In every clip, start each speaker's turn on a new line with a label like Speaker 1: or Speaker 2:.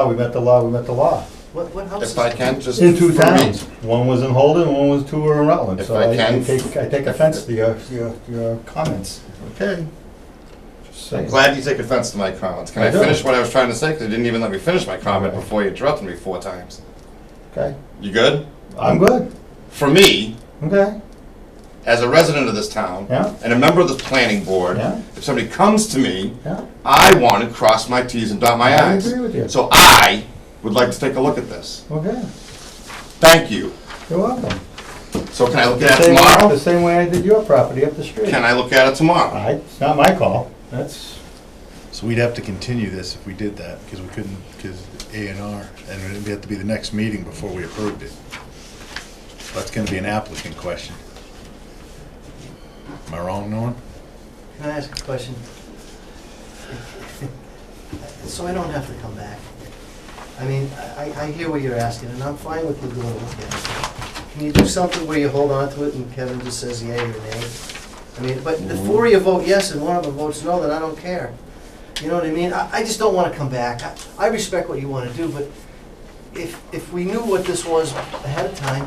Speaker 1: law, we met the law, we met the law.
Speaker 2: What, what house is
Speaker 3: If I can, just.
Speaker 1: In two
Speaker 3: for
Speaker 1: towns,
Speaker 3: me.
Speaker 1: one was in Holden, one was two were in Rutland.
Speaker 3: If
Speaker 1: So
Speaker 3: I
Speaker 1: I I
Speaker 3: can-
Speaker 1: take, I take offense to your, your, your comments.
Speaker 3: Okay.
Speaker 1: Just
Speaker 3: I'm
Speaker 1: saying.
Speaker 3: glad you take offense to my comments. Can
Speaker 1: I
Speaker 3: I
Speaker 1: do.
Speaker 3: finish what I was trying to say? Because you didn't even let me finish my comment
Speaker 1: Okay.
Speaker 3: before you interrupted me four times.
Speaker 1: Okay,
Speaker 3: You good?
Speaker 1: I'm good,
Speaker 3: For me,
Speaker 1: okay,
Speaker 3: as a resident of this town.
Speaker 1: Yeah.
Speaker 3: And a member of this planning board.
Speaker 1: Yeah.
Speaker 3: If somebody comes to me,
Speaker 1: yeah.
Speaker 3: I want to cross my Ts and dot my
Speaker 1: I
Speaker 3: Is.
Speaker 1: agree with you.
Speaker 3: So I would like to take a look at this.
Speaker 1: Okay,
Speaker 3: Thank you.
Speaker 1: you're welcome.
Speaker 3: So can I look
Speaker 1: The
Speaker 3: at it
Speaker 1: same- The
Speaker 3: tomorrow?
Speaker 1: same way I did your property up the street.
Speaker 3: Can I look at it tomorrow?
Speaker 1: I, it's not my call, that's,
Speaker 4: So we'd have to continue this if we did that, because we couldn't, because A and R, and it'd have to be the next meeting before we approved it. That's gonna be an applicant question. Am I wrong, Norm?
Speaker 2: Can I ask a question? So I don't have to come back. I mean, I, I hear what you're asking, and I'm fine with you doing a look at it. Can you do something where you hold on to it and Kevin just says yea or nay? I mean, but the four of you vote yes and one of them votes no, then I don't care. You know what I mean? I, I just don't wanna come back. I, I respect what you wanna do, but if, if we knew what this was ahead of time,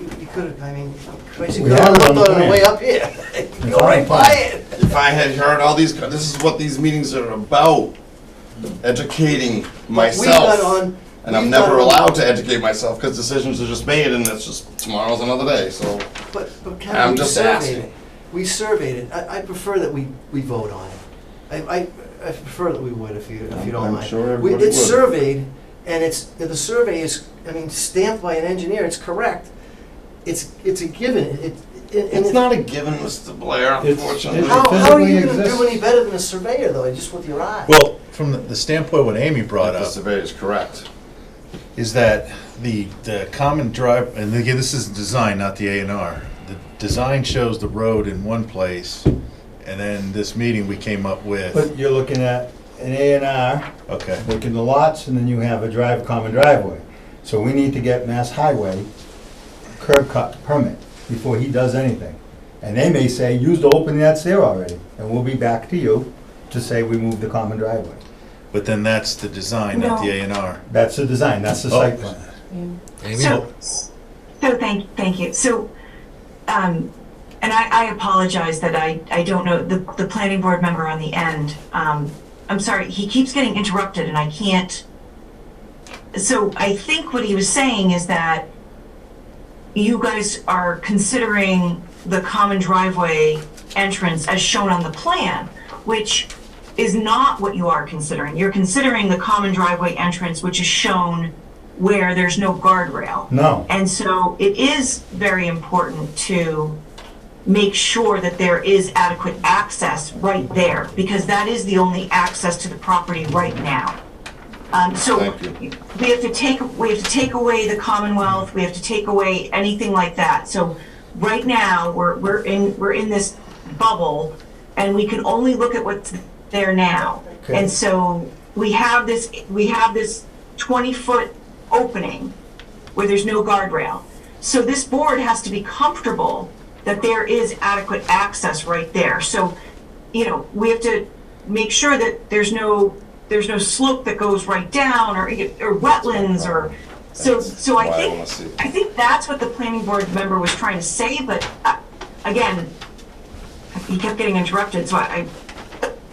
Speaker 2: you, you could've, I mean, crazy,
Speaker 1: We
Speaker 2: I
Speaker 1: have it on the
Speaker 2: thought of the
Speaker 1: plan.
Speaker 2: way up here. Go
Speaker 1: on
Speaker 2: right
Speaker 1: the plan.
Speaker 2: by it.
Speaker 3: If I had heard all these, co- this is what these meetings are about, educating
Speaker 2: We've got
Speaker 3: myself.
Speaker 2: on.
Speaker 3: And I'm
Speaker 2: we've got
Speaker 3: never
Speaker 2: on-
Speaker 3: allowed to educate myself because decisions are just made and it's just, tomorrow's another day, so.
Speaker 2: But, but
Speaker 3: I'm
Speaker 2: Kevin, we
Speaker 3: just
Speaker 2: surveyed
Speaker 3: asking.
Speaker 2: it. We surveyed it. I, I prefer that we, we vote on it. I, I, I prefer that we would if you, if you don't
Speaker 3: I'm
Speaker 2: mind.
Speaker 3: sure
Speaker 2: We-
Speaker 3: everybody
Speaker 2: It's
Speaker 3: would.
Speaker 2: surveyed, and it's, the survey is, I mean, stamped by an engineer, it's correct. It's, it's a given, it, it- and
Speaker 3: It's
Speaker 2: it.
Speaker 3: not a given, Mr. Blair,
Speaker 1: It's-
Speaker 3: unfortunately.
Speaker 2: How, how are you
Speaker 1: physically
Speaker 2: gonna do
Speaker 1: exists.
Speaker 2: any better than a surveyor, though, just with your eye?
Speaker 4: Well, from the- the standpoint what Amy brought
Speaker 3: The
Speaker 4: up,
Speaker 3: survey is correct.
Speaker 4: is that the, the common drive, and again, this is design, not the A and R. The design shows the road in one place, and then this meeting we came up with,
Speaker 1: but you're looking at an A and R,
Speaker 4: okay.
Speaker 1: looking the lots, and then you have a drive, common driveway. So we need to get Mass Highway curb cut permit before he does anything. And they may say, use the opening that's there already, and we'll be back to you to say we moved the common driveway.
Speaker 4: But then that's the design, not the A and R.
Speaker 1: That's the design, that's the
Speaker 4: Oh.
Speaker 1: site plan.
Speaker 5: So, so thank, thank you. So, um, and I, I apologize that I, I don't know, the, the planning board member on the end, um, I'm sorry, he keeps getting interrupted and I can't. So I think what he was saying is that you guys are considering the common driveway entrance as shown on the plan, which is not what you are considering. You're considering the common driveway entrance, which is shown where there's no guardrail.
Speaker 1: No,
Speaker 5: And so it is very important to make sure that there is adequate access right there, because that is the only access to the property right now. Um, so
Speaker 3: Thank you.
Speaker 5: we have to take, we have to take away the Commonwealth, we have to take away anything like that. So right now, we're, we're in, we're in this bubble, and we can only look at what's there now.
Speaker 1: Okay.
Speaker 5: And so we have this, we have this 20-foot opening where there's no guardrail. So this board has to be comfortable that there is adequate access right there. So, you know, we have to make sure that there's no, there's no slope that goes right down or, or wetlands or, so, so I
Speaker 3: That's why I
Speaker 5: think,
Speaker 3: wanna see it.
Speaker 5: I think that's what the planning board member was trying to say, but uh, again, he kept getting interrupted, so I, I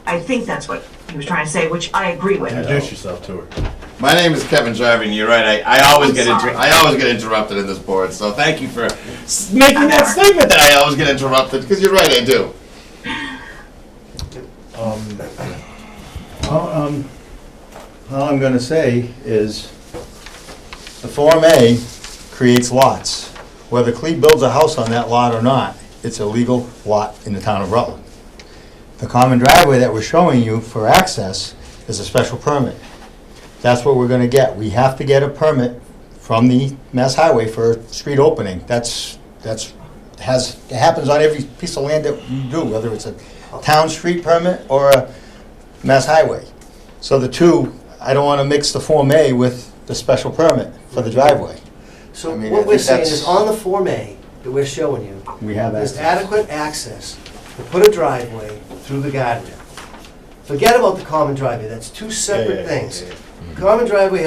Speaker 5: I think that's what he was trying to say, which I agree with.
Speaker 4: Introduce yourself to her.
Speaker 3: My name is Kevin Jarvie, and you're right. I, I always
Speaker 5: I'm
Speaker 3: get inter-
Speaker 5: sorry.
Speaker 3: I always get interrupted in this board. So thank you for s- making
Speaker 5: I'm
Speaker 3: that
Speaker 5: sorry.
Speaker 3: statement that I always get interrupted because you're right. I do.
Speaker 1: Well, um, all I'm gonna say is, the Form A creates lots. Whether Cleve builds a house on that lot or not, it's a legal lot in the town of Rutland. The common driveway that we're showing you for access is a special permit. That's what we're gonna get. We have to get a permit from the Mass Highway for a street opening. That's, that's, has, it happens on every piece of land that you do, whether it's a town street permit or a Mass Highway. So the two, I don't want to mix the Form A with the special permit for the driveway.
Speaker 2: So
Speaker 1: I mean, I
Speaker 2: what we're
Speaker 1: think
Speaker 2: saying
Speaker 1: that's-
Speaker 2: is on the Form A that we're showing you,
Speaker 1: We have
Speaker 2: there's
Speaker 1: access.
Speaker 2: adequate access to put a driveway through the guardrail. Forget about the common driveway, that's two
Speaker 4: yeah,
Speaker 2: separate
Speaker 4: yeah,
Speaker 2: things.
Speaker 4: yeah,
Speaker 2: common driveway